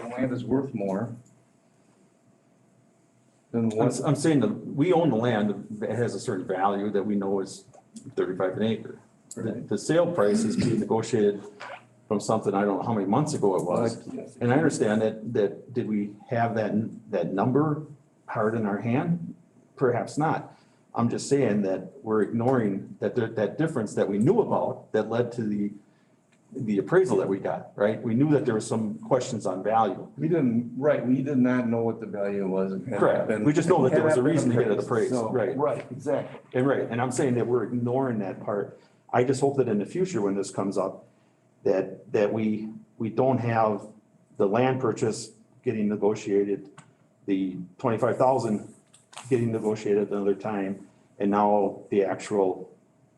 land is worth more than I'm, what, s- I'm saying that we own the land that has a certain value that we know is thirty-five an acre. The, the sale price is being negotiated from something, I don't know how many months ago it was. And I understand that, that, did we have that, n- that number hard in our hand? Perhaps not. I'm just saying that we're ignoring that, there- that difference that we knew about that led to the, the appraisal that we got, right? We knew that there were some questions on value. we didn't, right, we did not know what the value was. It had Correct. been- We just know that there was a had not been reason to get it appraised, so- right. Right, exactly. And right, and I'm saying that we're ignoring that part. I just hope that in the future, when this comes up, that, that we, we don't have the land purchase getting negotiated, the twenty-five thousand getting negotiated another time, and now the actual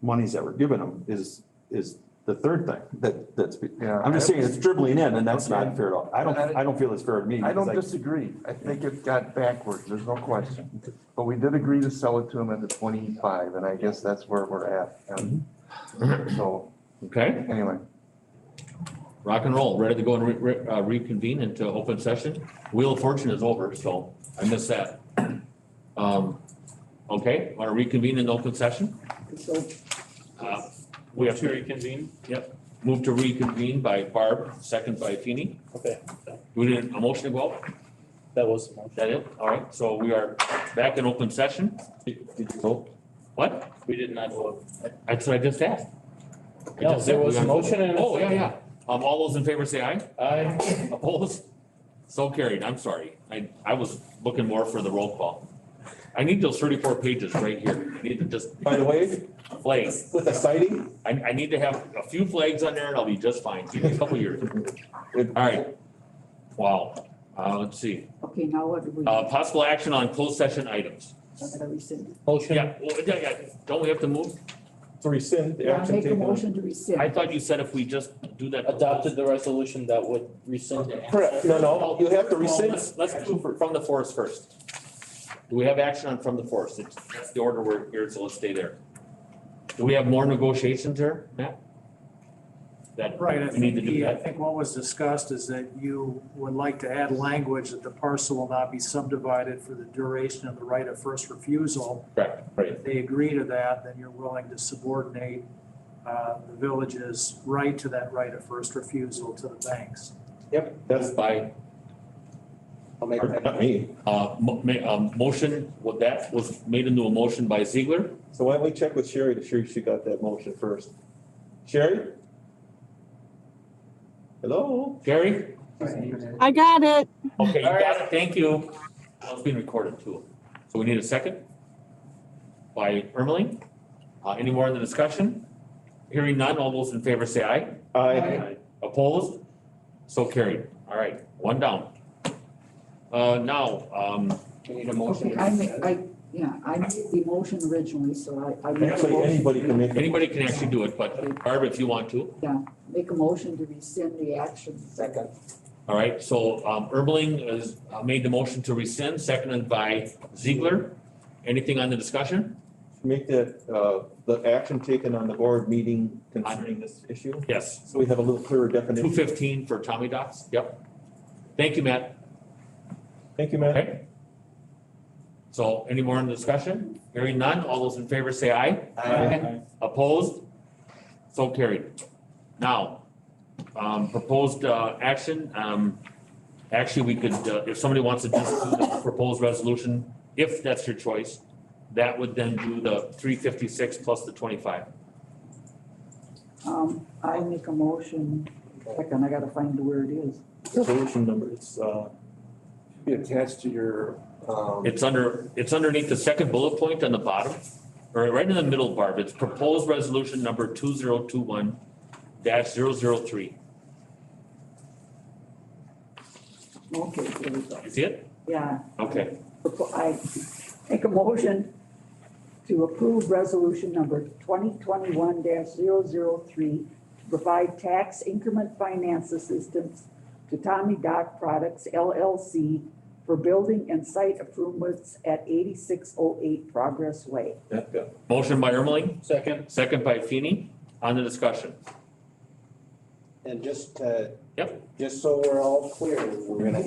monies that we're giving them is, is the third thing that, that's, be- Yeah. I'm just saying it's dribbling in, and that's not fair at all. I don't, Okay. I don't feel it's fair to me. I don't because disagree. I think it got backwards, there's no question. But we did agree to sell it to him at the twenty-five, and I guess that's where we're at. And Mm-hmm. So, Okay, anyway, rock and roll, ready to go and re- re- uh, reconvene into open session. Wheel of Fortune is over, so I missed that. Um, okay, want to reconvene in open session? Uh, We have to to reconvene? move to reconvene by Barb, second by Feeny. Okay, We need a motion to go out? that was the motion. That it? All right, so we are back in open session. Did did you vote? What? We did not vote. That's what I just asked. I No, just there said was we a are- motion and a Oh, yeah, second. yeah. Um, all those in favor say aye. Aye. Opposed? So carried, I'm sorry. I, I was looking more for the roll call. I need those thirty-four pages right here. I need to just By the way, flags. with a sighting, I, I need to have a few flags on there and I'll be just fine. Give me a couple years. All right. Wow. Uh, let's see. Okay, now what do we, Uh, what possible action on closed session items. do we say? Motion, Yeah, well, yeah, yeah. Don't we have to move? to rescind the I action make a taken. motion to rescind. I thought you said if we just do that. adopted the resolution that would rescind it. Correct, no, no, you have to Well, rescind. Let's, let's do from the forest first. Do we have action on from the forest? It's- That's the order we're here, so let's stay there. Do we have more negotiations there, Matt? That Right, I we need to think, do the- I that? think what was discussed is that you would like to add language that the parcel will not be subdivided for the duration of the right of first refusal. Correct, right. If they agree to that, then you're willing to subordinate uh, the village's right to that right of first refusal to the banks. Yep, That's that's, by, I'll make that. Not me. uh, mo- ma- um, motion, what that was made into a motion by Ziegler. So why don't we check with Sherry to sure she got that motion first? Sherry? Hello? Gary? I got it. Okay, you got it, thank you. Well, it's being recorded too. So we need a second by Ermeling. Uh, any more in the discussion? Hearing none, all those in favor say aye. I, Opposed? So carried. All right, one down. Uh, now, um, Okay, I make, I, yeah, I made the motion originally, so I, I make a actually, motion, anybody can make. a- anybody can actually do it, but Barb, if you want to. make a motion to rescind the action. Second. All right, so, um, Ermeling has uh, made the motion to rescind, seconded by Ziegler. Anything on the discussion? Make that, uh, the action taken on the board meeting concerning this issue, Yes. so we have a little clearer Two definition. fifteen for Tommy Dots, yep. Thank you, Matt. Thank you, Matt. Okay. So any more in the discussion? Hearing none, all those in favor say aye. Aye. Opposed? So carried. Now, um, proposed, uh, action, um, actually, we could, uh, if somebody wants to just do the proposed resolution, if that's your choice, that would then do the three fifty-six plus the twenty-five. Um, I make a motion, second, I gotta find where it is. Resolution number, it's, uh, be attached to your, um, It's under, it's underneath the second bullet point on the bottom, or right in the middle, Barb, it's proposed resolution number two zero two one dash zero zero three. Okay, there we go. You see it? Yeah, Okay, Propo- I make a motion to approve resolution number twenty twenty-one 3 to provide tax increment finance assistance to Tommy Dock Products LLC for building and site improvements at eighty-six oh eight Progress Way. that guy. motion by Ermeling, Second, second by Feeny, on the discussion. And just, uh. Yep. Just so we're all clear, we're gonna